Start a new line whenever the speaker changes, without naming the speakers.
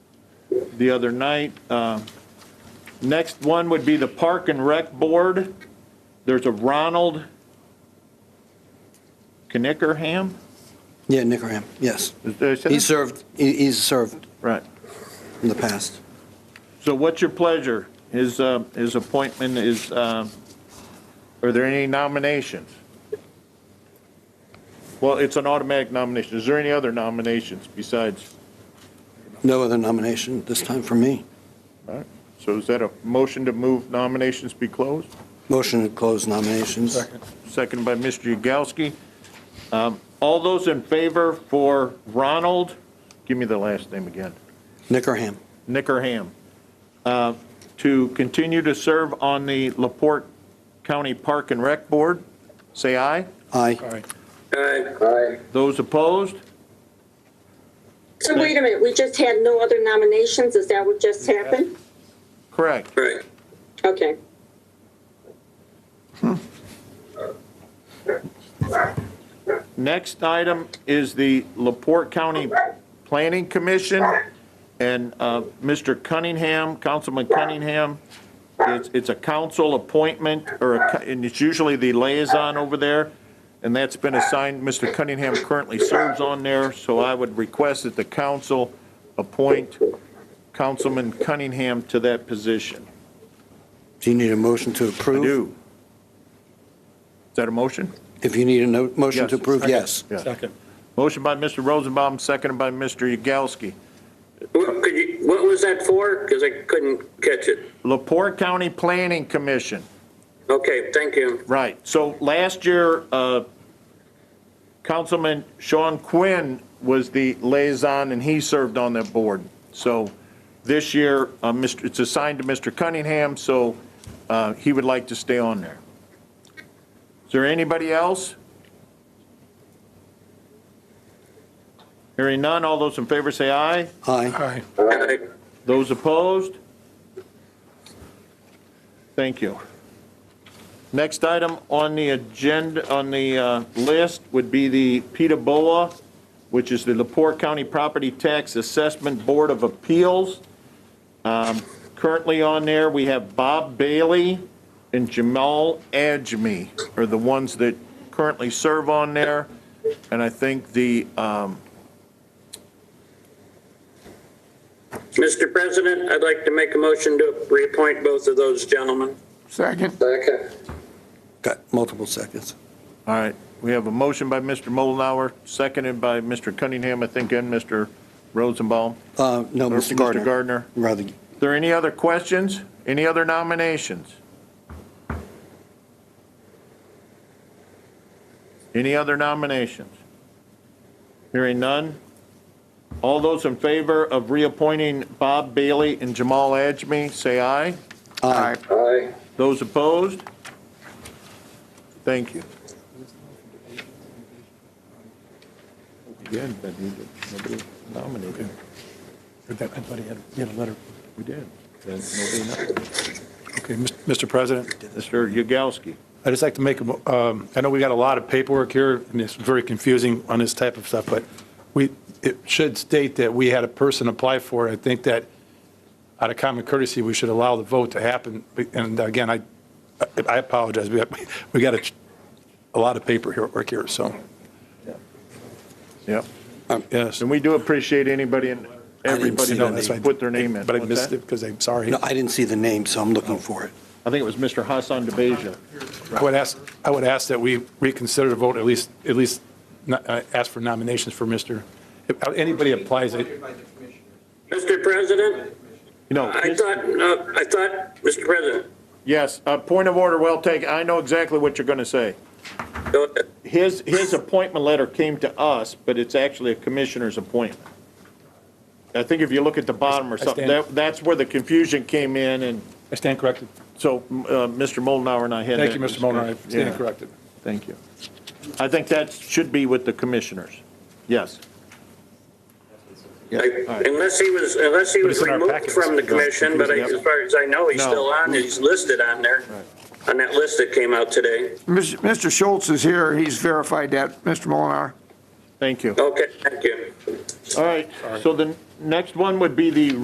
the other night. Uh, Next one would be the Park and Rec Board. There's a Ronald Knickerham?
Yeah, Nickerham, yes.
Is there- is that-
He served, he- he's served
Right.
in the past.
So what's your pleasure? His, uh, his appointment is, uh, are there any nominations? Well, it's an automatic nomination. Is there any other nominations besides?
No other nomination this time for me.
all right. So is that a motion to move nominations be closed?
Motion to close nominations.
Second by Mr. Yagowski. Um, All those in favor for Ronald, give me the last name again,
Nickerham,
Nickerham, uh, to continue to serve on the Laporte County Park and Rec Board, say aye.
aye.
Aye. Aye.
Those opposed?
So wait a minute, we just had no other nominations, is that what just happened?
Correct.
Right.
Okay.
Next item is the Laporte County Planning Commission, and uh, Mr. Cunningham, Councilman Cunningham, it's, it's a council appointment, or, a co- and it's usually the liaison over there, and that's been assigned, Mr. Cunningham currently serves on there, so I would request that the council appoint Councilman Cunningham to that position.
Do you need a motion to
I
approve?
do. Is that a motion?
If you need a no- motion
Yes.
to approve,
Second.
yes.
Yeah.
Second.
Motion by Mr. Rosenbaum, seconded by Mr. Yagowski.
What, could you, what was that for? Because I couldn't catch it.
Lepore County Planning Commission,
Okay, thank you.
right. So last year, uh, Councilman Sean Quinn was the liaison, and he served on that board. So this year, uh, Mr. it's assigned to Mr. Cunningham, so uh, he would like to stay on there. Is there anybody else? Hearing none, all those in favor say aye.
Aye.
Aye.
Aye.
Those opposed? Thank you. Next item on the agenda, on the uh, list would be the PETA BOA, which is the Lepore County Property Tax Assessment Board of Appeals. Um, Currently on there, we have Bob Bailey and Jamal Ajmi are the ones that currently serve on there. And I think the, um,
Mr. President, I'd like to make a motion to reappoint both of those gentlemen.
Second.
Second.
Got multiple seconds.
All right, we have a motion by Mr. Mullenhour, seconded by Mr. Cunningham, I think, and Mr. Rosenbaum.
Uh, No,
Or
Mr. Gardner.
Gardner.
Rather,
Are there any other questions? Any other nominations? Any other nominations? Hearing none? All those in favor of reappointing Bob Bailey and Jamal Ajmi, say aye.
aye.
Aye.
Those opposed? Thank you. Again, but he- nobody nominated.
I thought he had, he had a letter.
We did. Then nobody nominated.
Okay, Mis- Mr. President,
Mr. Yagowski.
I'd just like to make, a mo- um, I know we got a lot of paperwork here, and it's very confusing on this type of stuff, but we, it should state that we had a person apply for it. I think that out of common courtesy, we should allow the vote to happen. And again, I, I apologize, we got, we got a, a lot of paper here, work here, so,
Yep.
yes.
And we do appreciate anybody and everybody
see that. That's
that
why I-
put their name in.
But I
What's
missed
that?
it because I'm sorry.
No, I didn't see the name, so I'm looking for it.
I think it was Mr. Hassan DeBeja.
I would ask, I would ask that we reconsider the vote, at least, at least no- uh, ask for nominations for Mr., if uh, anybody applies, I-
Mr. President,
No,
I thought, uh, I thought, Mr. President,
yes, uh, point of order, well taken. I know exactly what you're going to say.
go ahead.
His, his appointment letter came to us, but it's actually a commissioner's appointment. I think if you look at the bottom or
I
something,
stand-
that, that's where the confusion came in, and
I stand corrected.
so, uh, Mr. Molnar and I had.
Thank
that
you, Mr. Molnar, I
discussion.
stand
Yeah,
corrected.
Thank you. I think that should be with the commissioners. Yes. Yeah, all
I-
right.
Unless he was, unless he
But
was
it's in our
removed
packet.
from the commission, but I-
Yep.
as far as I know, he's
No.
still on, he's listed on there, on that list that came out today.
Mr. Schultz is here, he's verified that, Mr. Molinar.
Thank you.
Okay, thank you.
All right, so the next one would be the